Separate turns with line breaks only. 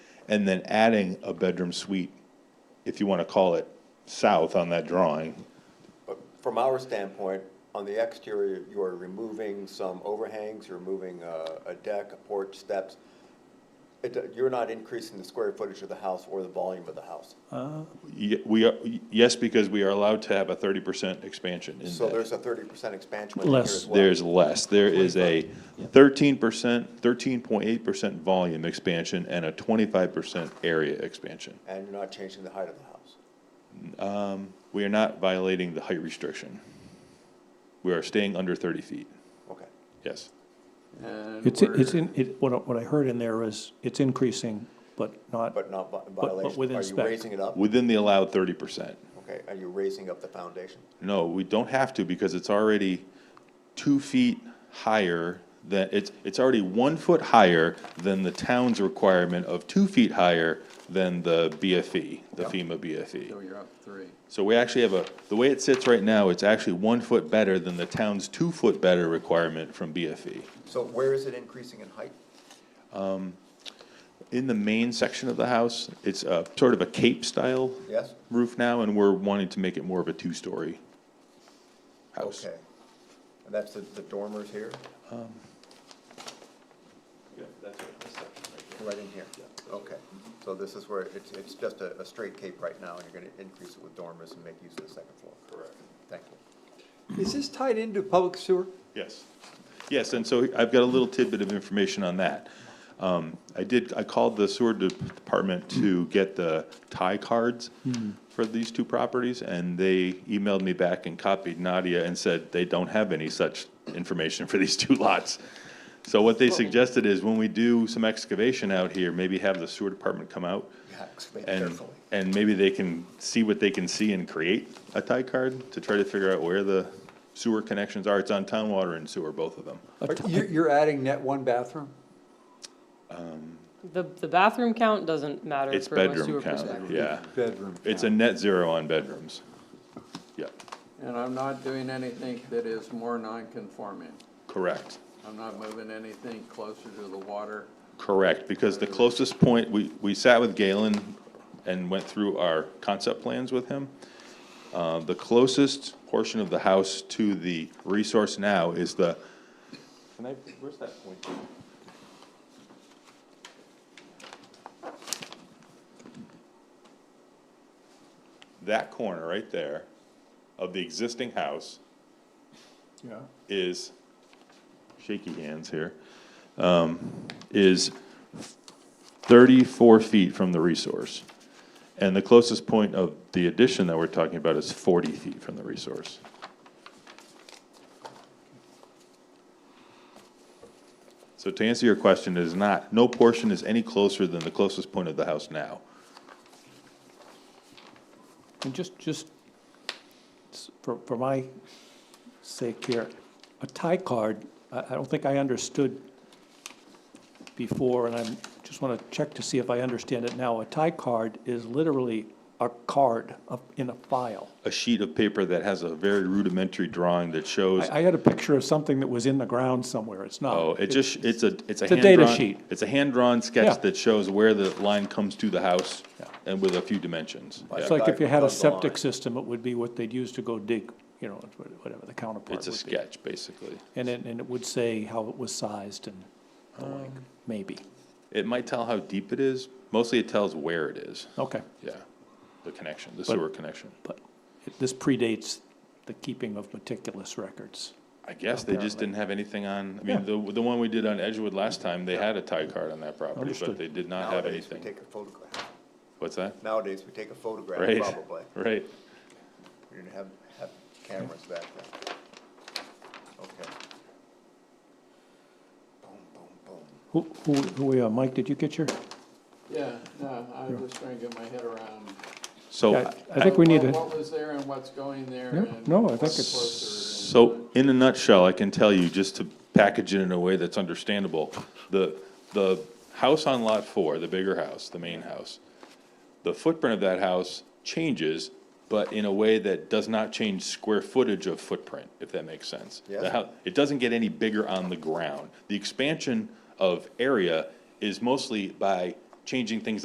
and then adding a bedroom suite, if you want to call it, south on that drawing.
From our standpoint, on the exterior, you are removing some overhangs, you're removing uh, a deck, a porch, steps. It- You're not increasing the square footage of the house or the volume of the house.
Ye- We are, yes, because we are allowed to have a thirty percent expansion in
So
that.
there's a thirty percent expansion within here
Less.
as well.
There's less. There is a thirteen percent, thirteen point eight percent volume expansion and a twenty-five percent area expansion.
And you're not changing the height of the house.
We are not violating the height restriction. We are staying under thirty feet,
Okay.
yes.
And
It's, it's
we're-
in, it, what, I- what I heard in there is, it's increasing, but not,
But not vi-
but
violation,
within
are you
spec.
raising it up?
Within the allowed thirty percent.
Okay, are you raising up the foundation?
No, we don't have to because it's already two feet higher than, it's, it's already one foot higher than the town's requirement of two feet higher than the BFE, the FEMA
So
BFE.
you're up three.
So we actually have a, the way it sits right now, it's actually one foot better than the town's two foot better requirement from E. BFE.
So where is it increasing in height?
In the main section of the house, it's a sort of a cape style
Yes?
roof now, and we're wanting to make it more of a two-story house. Um,
Okay. And that's the, the dormers here, right in here? Okay, so this is where, it's, it's just a, a straight cape right now, and you're gonna increase it with dormers and make use of the second floor? Correct. Thank you.
Is this tied into public sewer?
Yes, yes, and so I've got a little tidbit of information on that. Um, I did, I called the sewer de- department to get the tie cards for these two properties, and they emailed me back and copied Nadia and said they don't have any such information for these two lots. So what they suggested is when we do some excavation out here, maybe have the sewer department come out
Yeah, excavate
and,
carefully.
and maybe they can see what they can see and create a tie card to try to figure out where the sewer connections are. It's on town water and sewer, both of them.
Are- You're, you're adding net one bathroom?
The, the bathroom count doesn't matter
It's
from a
bedroom
sewer
count,
perspective.
yeah.
Bedroom.
It's a net zero on bedrooms. Yeah,
And I'm not doing anything that is more non-conforming.
correct,
I'm not moving anything closer to the water.
correct, because the closest point, we, we sat with Galen and went through our concept plans with him. Uh, the closest portion of the house to the resource now is the, can I, where's that point? That corner right there of the existing house
yeah,
is, shaky hands here, um, is thirty-four feet from the resource. And the closest point of the addition that we're talking about is forty feet from the resource. So to answer your question, it is not, no portion is any closer than the closest point of the house now.
and just, just s- for, for my sake here, a tie card, I, I don't think I understood before, and I'm, just wanna check to see if I understand it now. A tie card is literally a card of, in a file.
A sheet of paper that has a very rudimentary drawing that shows
I, I had a picture of something that was in the ground somewhere, it's not.
Oh, it just, it's a, it's a
It's a
hand
data
drawn-
sheet.
It's a hand-drawn
Yeah.
sketch that shows where the line comes to the house
Yeah.
and with a few dimensions.
It's
Yeah.
like if you had a
Down the line.
septic system, it would be what they'd use to go dig, you know, it's what- whatever the counterpart would
It's
be.
a sketch, basically.
And it, and it would say how it was sized and the like, maybe.
It might tell how deep it is. Mostly it tells where it is.
Okay,
Yeah. The connection, the
But-
sewer connection.
but it- this predates the keeping of meticulous records.
I guess they just didn't have anything on, I
Yeah.
mean, the, the one we did on Edgewood last time, they had a tie card on that property, but
Understood.
they did not have
Nowadays, we
anything.
take a photograph.
What's that?
Nowadays, we take a photograph,
Right,
probably.
right.
We didn't have, have cameras back then. Okay. Boom, boom, boom.
Who, who, who we are, Mike, did you get your?
Yeah, no, I'm just trying to get my head around.
So.
Yeah, I think we need
what-
to,
What was there and what's going there
Yeah,
and.
no, I think
what's
it's-
closer and-
So, in a nutshell, I can tell you, just to package it in a way that's understandable, the, the house on lot four, the bigger house, the main house, the footprint of that house changes, but in a way that does not change square footage of footprint, if that makes sense. The
Yes.
hou- It doesn't get any bigger on the ground. The expansion of area is mostly by changing things